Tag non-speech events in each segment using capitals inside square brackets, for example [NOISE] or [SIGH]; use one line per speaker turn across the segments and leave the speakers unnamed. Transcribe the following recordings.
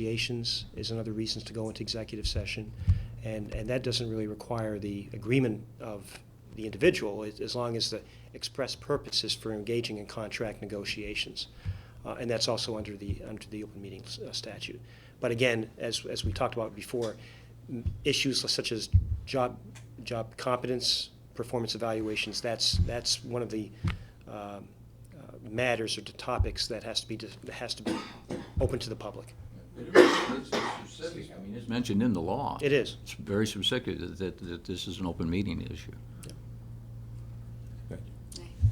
negotiations is another reason to go into executive session. And, and that doesn't really require the agreement of the individual, as as long as the express purpose is for engaging in contract negotiations. Uh, And that's also under the, under the open meetings uh, statute. But again, as, as we talked about before, m- issues such as job, job competence, performance evaluations, that's, that's one of the um, uh, matters or the topics that has to be, dis- that has to be open to the public.
It's specific. I mean, it's mentioned in the law.
It is.
It's very specific that, that- that this is an open meeting issue.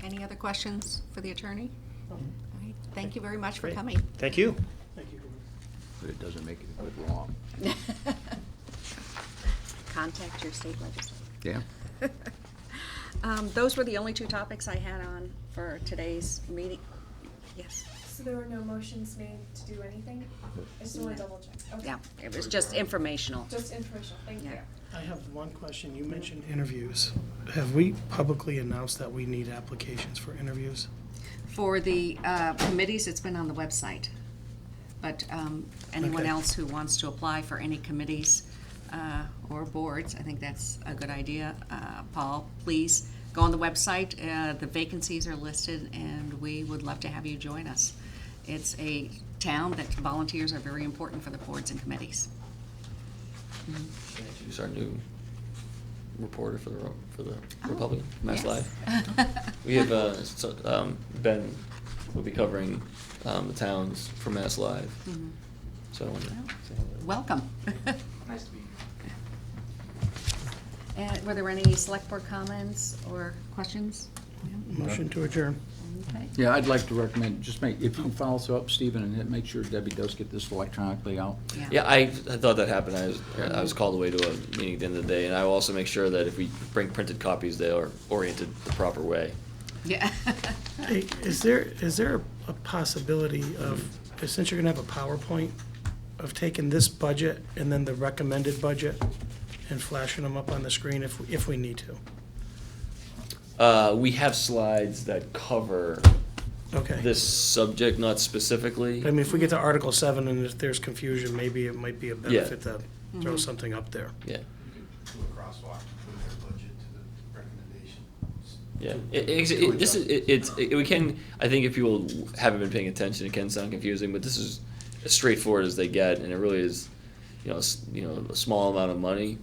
Any other questions for the attorney? All right, Thank you very much for
Great.
coming.
Thank you.
But it doesn't make it a good law.
[LAUGHS] Contact your state legislature. [LAUGHS]
Yeah.
Um, Those were the only two topics I had on for today's meeting. Yes,
So there were no motions made to do anything? I just wanna double check. Okay.
yeah, it was just informational.
Just informational, thank you.
Yeah.
I have one question. You mentioned interviews. Have we publicly announced that we need applications for interviews?
For the uh, committees, it's been on the website. But um, anyone
Okay.
else who wants to apply for any committees uh, or boards, I think that's a good idea. Uh, Paul, please go on the website. Uh, The vacancies are listed, and we would love to have you join us. It's a town that volunteers are very important for the boards and committees.
Mm-hmm. She's our new reporter for the Ro- for the Republican Mass
Oh, yes. [LAUGHS]
Live. we have uh, so, um, Ben will be covering um, the towns for Mass Live,
Mhm.
so I wanted to
Oh, Well,
say hello.
Welcome.
[LAUGHS] Nice to be here.
And Uh, were there any select board comments or questions?
Motion to adjourn.
Okay.
Yeah, I'd like to recommend, just make, if you can follow us up, Stephen, and hit- make sure Debbie does get this electronically out.
Yeah, I, I thought that happened. I was I was called away to a meeting at the end of the day, and I will also make sure that if we bring printed copies, they are oriented the proper way.
Yeah. [LAUGHS]
Hey, is there, is there a possibility of, since you're gonna have a PowerPoint, of taking this budget and then the recommended budget and flashing them up on the screen if, if we need to?
Uh, we have slides that cover
Okay.
this subject, not specifically.
I mean, if we get to Article seven and if there's confusion, maybe it might be a benefit to throw something up there.
Yeah.
You could do a crosswalk from their budget to the recommendation.
Yeah, it, it, it- this is it, it's it, we can. I think if people haven't been paying attention, it can sound confusing, but this is as straightforward as they get, and it really is, you know, s- you know, a small amount of money,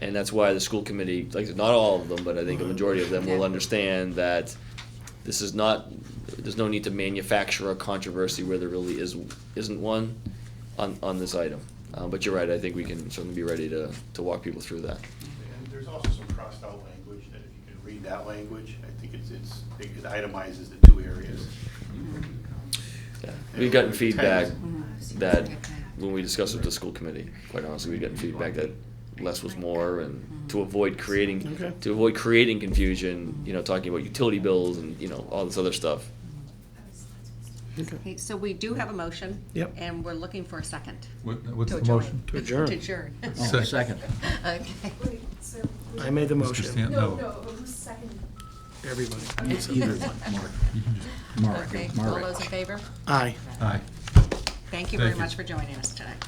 and that's why the school committee, like I said, not all of them, but I think a majority of them will
Yeah.
understand that this is not. There's no need to manufacture a controversy where there really is isn't one on on this item. Uh, but you're right. I think we can certainly be ready to to walk people through that.
And there's also some crossed out language that if you can read that language, I think it's, it's, it itemizes the two areas.
Yeah. We've gotten feedback. that
Okay.
when we discussed with the school committee, quite honestly, we got feedback that less was more and to avoid creating,
Okay.
to avoid creating confusion, you know, talking about utility bills and, you know, all this other stuff.
Okay.
Okay, So we do have a motion.
Yep.
And we're looking for a second.
What- What's
to
the
adjourn.
motion?
To adjourn.
To
[LAUGHS]
adjourn.
Second.
Oh, Second.
Okay.
Wait, so. who's-
I made the
Mr.
motion,
Stan-
No,
No.
no, who's second?
everybody.
It's either one, Mark. You can just- Mark,
Okay, all
Mark.
those in favor?
Aye.
Aye.
Thank you very
Thank you.
much for joining us today.